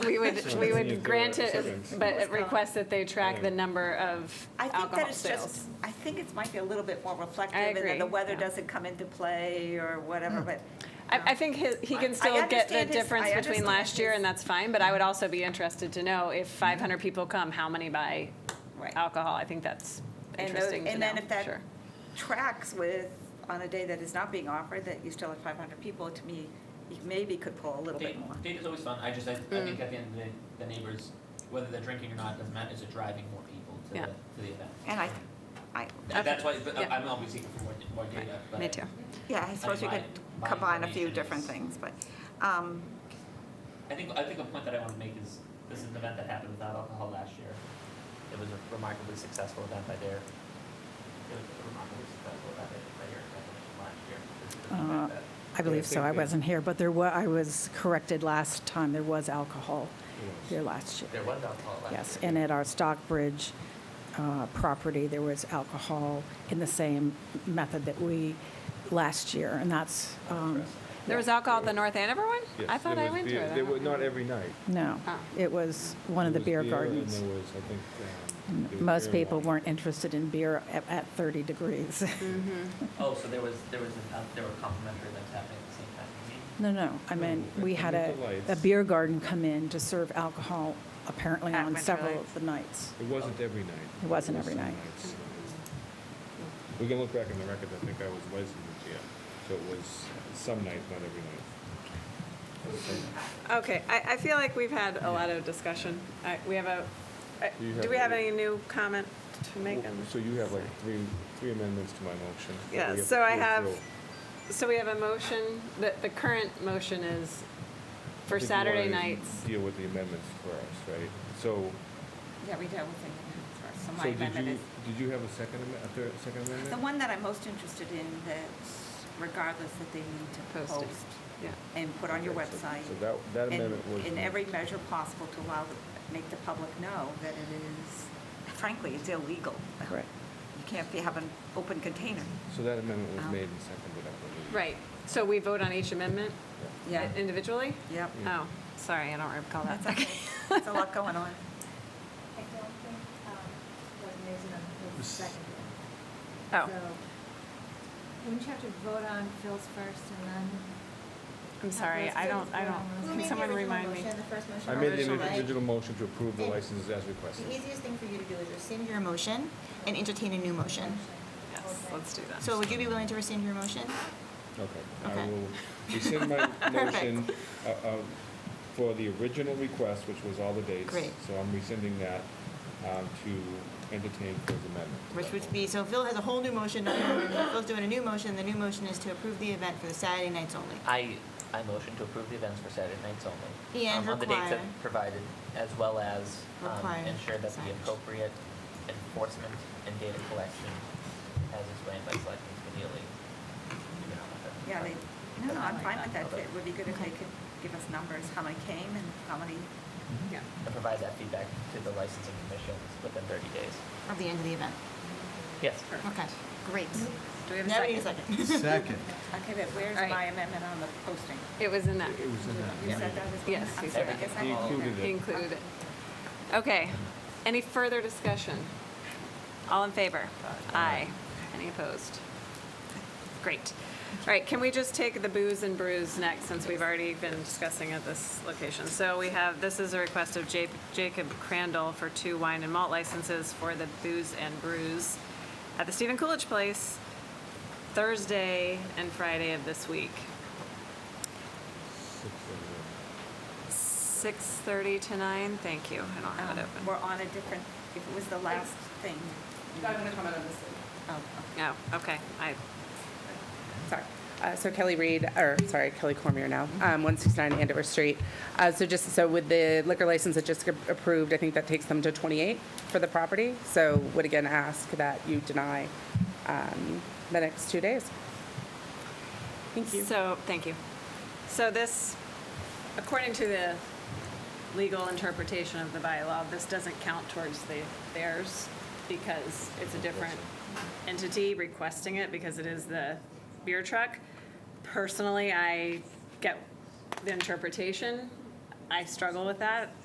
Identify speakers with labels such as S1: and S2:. S1: would, we would grant it, but request that they track the number of
S2: I think that
S1: alcohol
S2: it's just,
S1: sales.
S2: I think it might be a little bit more reflective.
S1: I
S2: And that the
S1: agree,
S2: weather
S1: yeah.
S2: doesn't come into play or whatever, but.
S1: I, I think his- he
S2: I
S1: can still get the
S2: understand his-
S1: difference
S2: I
S1: between
S2: understand
S1: last year,
S2: his-
S1: and that's fine, but I would also be interested to know if 500 people come, how many buy
S2: Right.
S1: alcohol? I think that's
S2: And those-
S1: interesting to
S2: And
S1: know,
S2: then if that
S1: sure.
S2: tracks with, on a day that is not being offered, that you still have 500 people, to me, you maybe could pull a little bit
S3: Date,
S2: more.
S3: date is always fun, I just, I, I think at the end of the day, the neighbors, whether they're drinking or not, doesn't matter, it's driving more people to the,
S1: Yeah.
S3: to the event.
S2: And I, I,
S3: And That's why, but
S1: Okay, yeah.
S3: I'm obviously looking for more, more data, but.
S1: Me too.
S2: yeah, I suppose we
S3: my-
S2: could
S3: my
S2: combine a few
S3: information
S2: different
S3: is-
S2: things, but, um,
S3: I think, I think a point that I want to make is, this is an event that happened without alcohol last year. It was a remarkably successful event by their, it was a remarkably successful event by their definition last year. It's the
S4: Uh,
S3: fact that-
S4: I believe so. I wasn't here, but there was, I was corrected last time. There was alcohol here last year.
S3: There was alcohol last year.
S4: Yes, and at our Stockbridge uh, property, there was alcohol in the same method that we last year, and that's, um,
S1: There was alcohol at the North Andover one?
S5: Yes,
S1: I thought
S5: there
S1: I
S5: was
S1: went to
S5: beer-
S1: it. I
S5: There
S1: don't
S5: were,
S1: know.
S5: not every night.
S4: no.
S1: Ah.
S4: It was one of the
S5: There was
S4: beer
S5: and
S4: gardens.
S5: there was, I think, uh, there was
S4: Most
S5: beer and
S4: people
S5: wine.
S4: weren't interested in beer at- at 30 degrees.
S3: Oh, so there was, there was, an out- there were complimentary events happening at the same time.
S4: No, no, I mean,
S5: No,
S4: we
S5: I
S4: had a,
S5: think the
S4: a
S5: lights.
S4: beer garden come in to serve alcohol apparently
S2: At
S4: on
S2: Winter
S4: several
S2: Lights.
S4: of the nights.
S5: It wasn't every night.
S4: It wasn't every
S5: some
S4: night.
S5: nights. uh, We can look back in the record, I think I was licensed, yeah, so it was some nights, not every night.
S1: Okay, I, I feel like we've had a lot of discussion. I- We have a, I-
S5: You
S1: do
S5: have
S1: we have
S5: a-
S1: any new comment to make? on-
S5: So you have like three, three amendments to my motion. that we
S1: Yeah,
S5: have to
S1: so I
S5: go
S1: have-
S5: through.
S1: So we have a motion, the, the current motion is
S5: I
S1: for
S5: think you
S1: Saturday
S5: wanna
S1: nights.
S5: Deal with the amendments first, right? So,
S2: yeah, we dealt with it. So
S5: so
S2: my
S5: did
S2: amendment
S5: you,
S2: is,
S5: did you have a second amendment, a third, second amendment?
S2: the one that I'm most interested in, that regardless that they need to
S1: Post
S2: post
S1: it. Yeah.
S2: and put on your
S5: Okay, so-
S2: website.
S5: So that, that
S2: in-
S5: amendment was.
S2: In every measure possible to allow, the- make the public know that it is, frankly, it's illegal.
S4: Right.
S2: You can't be, have an open container.
S5: So that amendment was
S2: Um,
S5: made and seconded, I believe.
S1: Right, so we vote on each amendment
S2: Yeah.
S1: individually?
S2: Yep.
S1: Oh, sorry, I don't recall
S2: That's
S1: that.
S2: okay. That's a lot going on.
S6: I don't think, um, was raised on Phil's second.
S1: Oh,
S6: um, So, wouldn't you have to vote on Phil's first and then?
S1: I'm sorry, I don't, I don't, can someone remind me?
S5: I made an
S1: Original, right?
S5: individual motion to approve the
S7: And-
S5: licenses as requested.
S7: The easiest thing for you to do is rescind your motion and entertain a new motion.
S1: Yes, let's do that.
S7: So would you be willing to rescind your motion?
S5: Okay, I
S7: Okay.
S5: will rescind my motion uh, uh, for the original request, which was all the dates.
S7: Great.
S5: So I'm rescinding that um, to entertain Phil's amendment. to
S7: Which
S5: that
S7: would
S5: motion.
S7: be, so Phil has a whole new motion, not your motion. Phil's doing a new motion, the new motion is to approve the event for the Saturday nights only. uh,
S3: I, I motion to approve the events for Saturday nights only.
S7: And
S3: um, On the dates that
S7: require-
S3: provided, as well as um,
S7: Require
S3: ensure that the
S7: signage.
S3: appropriate enforcement and data collection, as explained by Selectman Spinelli. you know, that-
S2: Yeah, they, no, no, I'm fine with that.
S3: Okay.
S2: It would be good if they could give us numbers, how many came and how many,
S1: Yeah.
S3: And provide that feedback to the licensing commissions within 30 days.
S7: At the end of the event.
S3: Yes.
S7: Okay, great.
S1: Do we have a
S7: Now we need a
S1: second?
S7: second.
S8: Second.
S2: okay, but where's
S1: All right.
S2: my amendment on the posting?
S1: It was in that,
S5: It was in that.
S2: You said that was.
S1: Yes,
S2: I'm
S1: we
S2: sorry,
S1: said
S2: I guess
S5: that.
S2: I
S5: He
S2: didn't
S5: included
S2: hear.
S5: it.
S1: included it. Okay, any further discussion? All in favor? Aye. Any opposed? Great. All right, can we just take the booze and brews next, since we've already been discussing at this location? So we have, this is a request of Ja- Jacob Crandall for two wine and malt licenses for the booze and brews at the Stephen Coolidge Place, Thursday and Friday of this week. 6:30 to 9, thank you, I don't have it
S2: Um,
S1: open.
S2: We're on a different, if it was the last thing.
S9: I'm going to comment on this later.
S2: Oh,
S1: No, okay, I,
S9: Sorry. Uh, So Kelly Reed, or sorry, Kelly Cormier now, um, 169 Andover Street. Uh, So just, so with the liquor license that just got approved, I think that takes them to 28 for the property. So would again ask that you deny um, the next two days. Thank you.
S1: so, thank you. So this, according to the legal interpretation of the bylaw, this doesn't count towards the theirs because it's a different entity requesting it because it is the beer truck. Personally, I get the interpretation. I struggle with that.